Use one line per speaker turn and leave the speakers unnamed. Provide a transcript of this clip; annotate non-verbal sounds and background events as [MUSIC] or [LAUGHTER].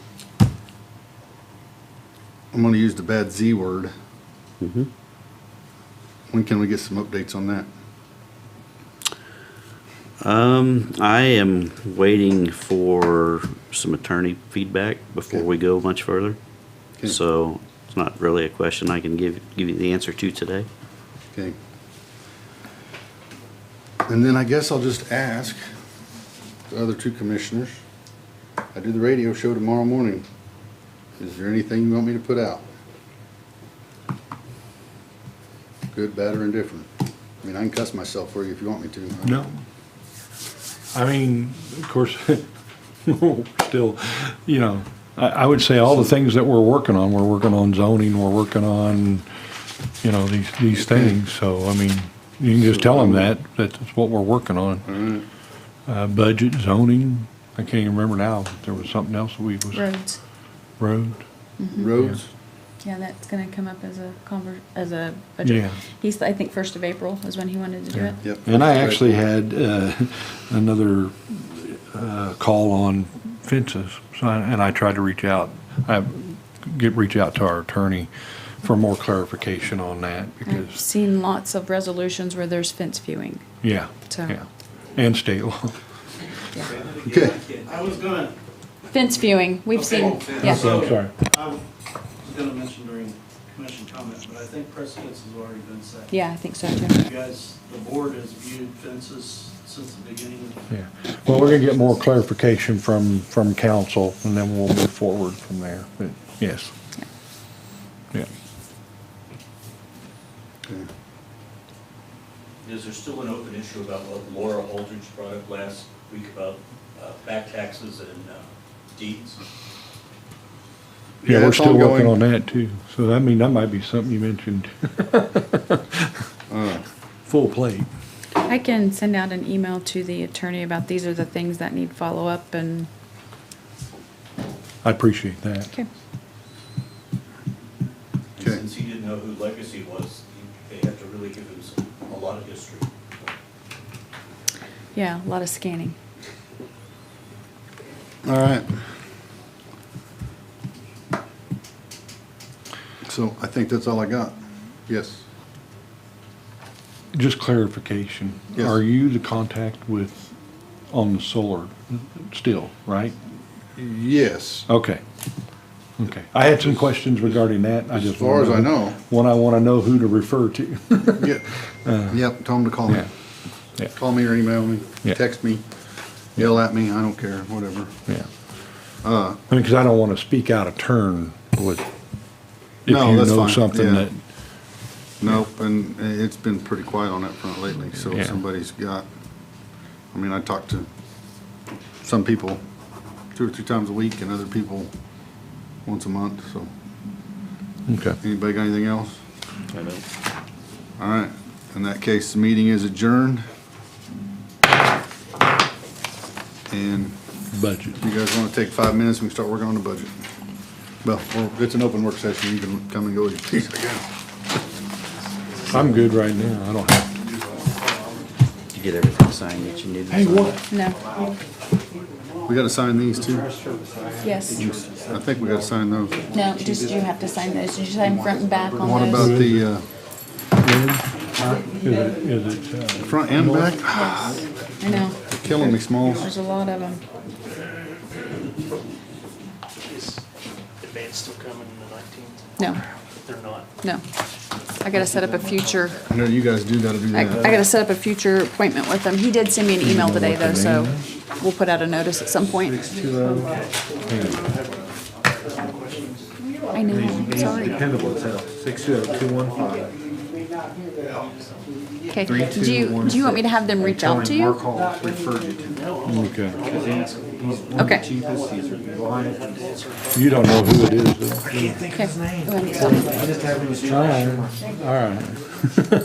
I'm gonna use the bad Z word.
Mm-hmm.
When can we get some updates on that?
Um, I am waiting for some attorney feedback before
Okay.
we go much further.
Okay.
So it's not really a question I can give, give you the answer to today.
Okay. And then I guess I'll just ask the other two commissioners. I do the radio show tomorrow morning. Is there anything you want me to put out? Good, bad, or indifferent? I mean, I can cuss myself for you if you want me to. I-
No. I mean, of course, [LAUGHS] still, you know, I, I would say all the things that we're working on, we're working on zoning, we're working on, you know, these, these things, so, I mean, you can just tell them that, that's what we're working on. Uh, budget, zoning, I can't even remember now, if there was something else we was,
Roads.
road,
Roads?
Yeah, that's gonna come up as a conver, as a budget.
Yeah.
He's, I think, first of April is when he wanted to do it.
Yep.
And I actually had uh, [LAUGHS] another uh, call on fences, so I- and I tried to reach out, I get, reach out to our attorney for more clarification on that,
I've
because,
seen lots of resolutions where there's fence viewing.
yeah,
So-
yeah. And state law.
Okay.
I was gonna,
Fence viewing, we've
Oh,
seen, yeah.
I'm sorry.
I was gonna mention during commission comment, but I think precedence has already been set.
Yeah, I think so
You
too.
guys, the board has viewed fences since the beginning.
Yeah, well, we're gonna get more clarification from, from council, and then we'll move forward from there, but, yes. Yeah,
Okay.
Is there still an open issue about what Laura Holdridge brought up last week about uh, back taxes and uh, deeds?
Yeah,
yeah, we're
it's
still working on
ongoing.
that too, so I mean, that might be something you mentioned. [LAUGHS] Full plate.
I can send out an email to the attorney about these are the things that need follow-up and,
I appreciate that.
okay.
And
Okay.
since he didn't know who Legacy was, he- they have to really give him some- a lot of history.
Yeah, a lot of scanning.
All right. So I think that's all I got. Yes.
Just clarification,
Yes.
are you the contact with, on the solar still, right?
Yes.
Okay. Okay. I had some questions regarding that. I
As
just
far as I
wanna-
know. Uh.
When I want to know who to refer to. [LAUGHS]
Yep, Yep, tell them to call me.
Uh. Yeah. Yeah.
Call me or email me,
Yeah.
text me, yell at me, I don't care, whatever.
Yeah. I mean, because I don't want to speak out of turn with, if you
No, that's
know
fine, yeah.
something that,
Nope, and uh, it's been pretty quiet on that front lately, so if
Yeah.
somebody's got, I mean, I talk to some people two or three times a week and other people once a month, so.
okay.
Anybody got anything else? I don't. All right, in that case, the meeting is adjourned. And
budget.
you guys want to take five minutes, we can start working on the budget. Well, or it's an open work session, you can come and go as you please, I guess.
I'm good right now. I don't have.
Did you get everything signed that you needed? to sign?
No,
We got to sign these too.
yes.
I think we got to sign those.
No, just you have to sign those. Did you sign front and back on
What about
those?
the uh,
Is it, is it, uh,
front and back? Ah,
I know,
Killing me, Smalls.
there's a lot of them.
Is the band still coming on the nineteenth?
No.
They're not.
No. I gotta set up a future,
I know you guys do got to do
I, I
that.
gotta set up a future appointment with him. He did send me an email today though, so we'll put out a notice at some point. I know, I'm sorry.
Six two oh two one five.
Okay, do you, do you want me to have them reach out to
Mark
you?
Hall referred you to.
uh, okay.
Okay.
Cheapest, these are the lines.
You don't know who it is, though.
Okay. Go ahead.
Just having a try.
All right.